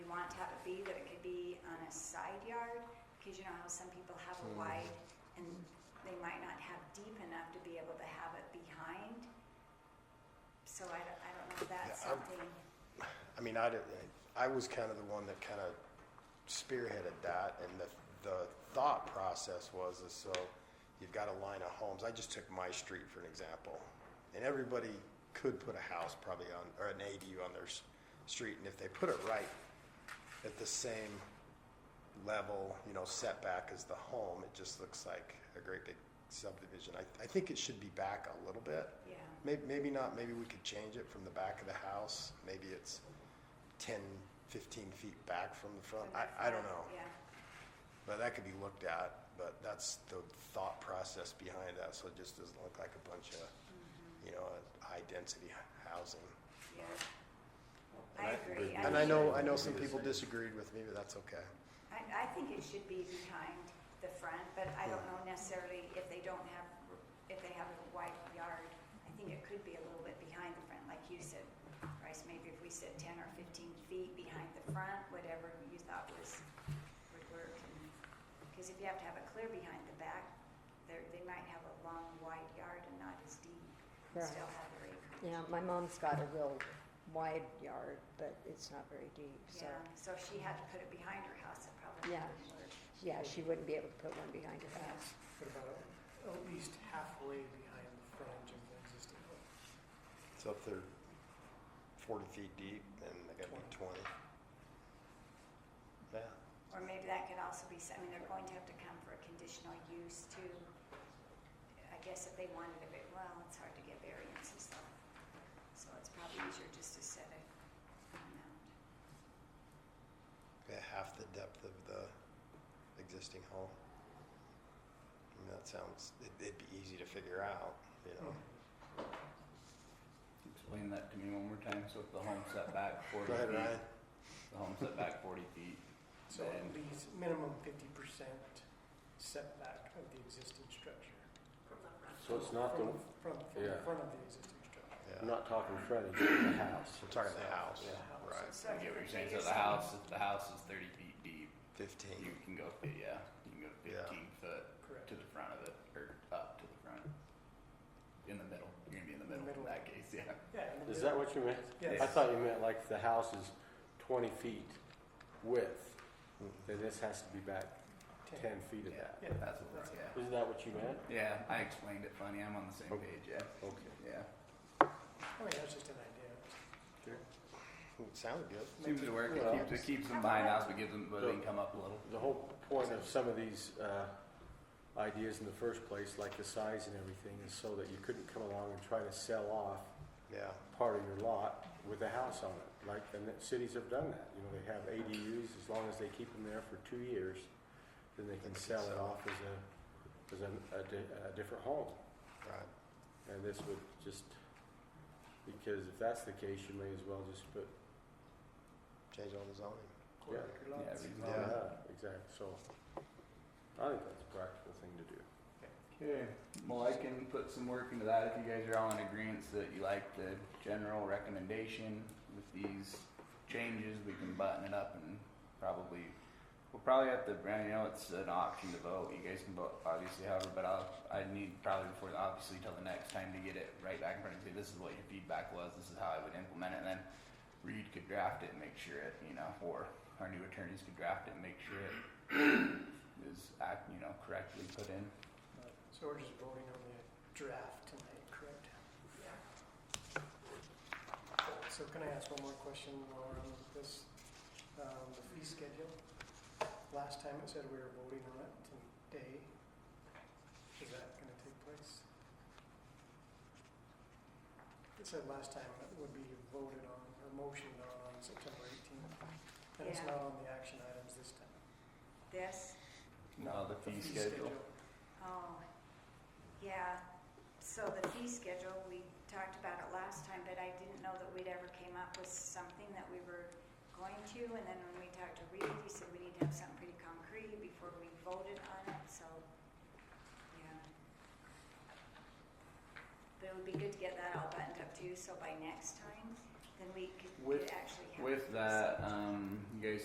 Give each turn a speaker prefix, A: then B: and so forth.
A: wide yard, because you know how some people have a
B: Hmm.
A: wide, and they might not have deep enough to be able to have it behind. So I don't, I don't know if that's
B: Yeah, I'm-
A: something,
B: I mean, I didn't, I was kind of the one that kind of spearheaded that, and the, the thought process was, is so you've got a line of homes, I just took my street for an example, and everybody could put a house probably on, or an ADU on their s- street, and if they put it right at the same level, you know, setback as the home, it just looks like a great big subdivision. I, I think it should be back a little bit.
A: yeah.
B: Maybe, maybe not, maybe we could change it from the back of the house, maybe it's 10, 15 feet back from the front, I, I don't know.
A: Yeah,
B: But that could be looked at, but that's the thought process behind that, so it just doesn't look like a bunch of, you know, high-density housing.
A: yeah. I agree.
B: And I
A: mean,
B: know, I know some people disagreed with me, but that's okay.
A: I, I think it should be behind the front, but I don't know necessarily if they don't have, if they have a wide yard. I think it could be a little bit behind the front, like you said, Bryce, maybe if we said ten or fifteen feet behind the front, whatever you thought was, would work. Because if you have to have it clear behind the back, there, they might have a long, wide yard and not as deep, and
C: Right.
A: still have the acreage.
C: Yeah, my mom's got a real wide yard, but it's not very deep, so,
A: Yeah, so if she had to put it behind her house, it probably
C: Yeah.
A: wouldn't work.
C: yeah, she wouldn't be able to put one behind her house.
D: What about at least halfway behind the frontage of the existing home?
B: So if they're 40 feet deep, then they gotta be 20. Yeah,
A: Or maybe that could also be, some- I mean, they're going to have to come for a conditional use too. I guess if they wanted a bit, well, it's hard to get variances though. So it's probably easier just to set it amount.
B: yeah, half the depth of the existing home. I mean, that sounds, it- it'd be easy to figure out, you know?
E: Explain that to me one more time, so if the home setback forty
B: Go ahead,
E: feet,
B: Ryan.
E: the home setback forty feet,
D: So at
E: And-
D: least minimum fifty percent setback of the existing structure.
F: So it's not the,
D: From From, from the
F: yeah.
D: front of the existing structure.
B: Yeah,
F: I'm not talking frontage, the house.
B: we're talking the house,
F: Yeah.
B: right,
A: So
E: I get what
A: if
E: you're saying,
A: you're
E: so the
A: saying-
E: house, if the house is thirty feet deep, you
B: fifteen,
E: can go, fi- yeah, you can go
B: Yeah.
E: fifteen foot
D: Correct.
E: to the front of it, or up to the front. In the middle, you're gonna be in the
D: In the middle.
E: middle in that case, yeah.
D: Yeah. in the
F: Is that
D: middle.
F: what you meant?
D: Yes.
F: I thought you meant like the house is twenty feet width, then this has to be back ten feet of that.
E: Yeah,
D: Yeah.
E: that's what, we're- yeah.
F: Isn't that what you meant?
E: Yeah, I explained it funny, I'm on the same
F: Okay.
E: page, yeah,
F: Okay.
E: yeah.
D: I mean, that's just an idea.
B: It sounded good.
E: Seems to work,
F: Well-
E: it keeps, it keeps them behind house, but gives them, but they
F: So-
E: can come up a little.
F: The whole point of some of these, uh, ideas in the first place, like the size and everything, is so that you couldn't come along and try to sell off
B: Yeah,
F: part of your lot with a house on it. Like, and the cities have done that, you know, they have ADUs, as long as they keep them there for two years, then they can sell it off as a, as a, a di- a different home.
B: right,
F: And this would just, because if that's the case, you may as well just put,
B: change all the zoning.
D: Quarter
F: Yeah.
D: acre
E: Yeah,
D: lots.
E: reasonable.
B: Yeah.
F: exactly, so. I think that's a practical thing to do.
E: Okay, well, I can put some work into that if you guys are all in agreement that you like the general recommendation with these changes, we can button it up and probably, we'll probably have to, I know it's an option to vote, you guys can vote obviously however, but I'll, I need probably before, obviously till the next time to get it right back in front of you, this is what your feedback was, this is how I would implement it, and then Reed could draft it and make sure it, you know, or our new attorneys could draft it and make sure it is act, you know, correctly put in.
D: So we're just voting on the draft tonight, correct? So can I ask one more question while we're on this, um, the fee schedule? Last time it said we were voting on it today. Is that gonna take place? It said last time it would be voted on, or motioned on, on September eighteenth, and it's
A: Yeah.
D: not on the action items this time.
A: This,
E: No, the fee schedule.
A: oh, yeah, so the fee schedule, we talked about it last time, but I didn't know that we'd ever came up with something that we were going to, and then when we talked to Reed, he said we need to have something pretty concrete before we voted on it, so, yeah. But it would be good to get that all buttoned up too, so by next time, then we could
E: With-
A: could actually have.
E: With that, um, you guys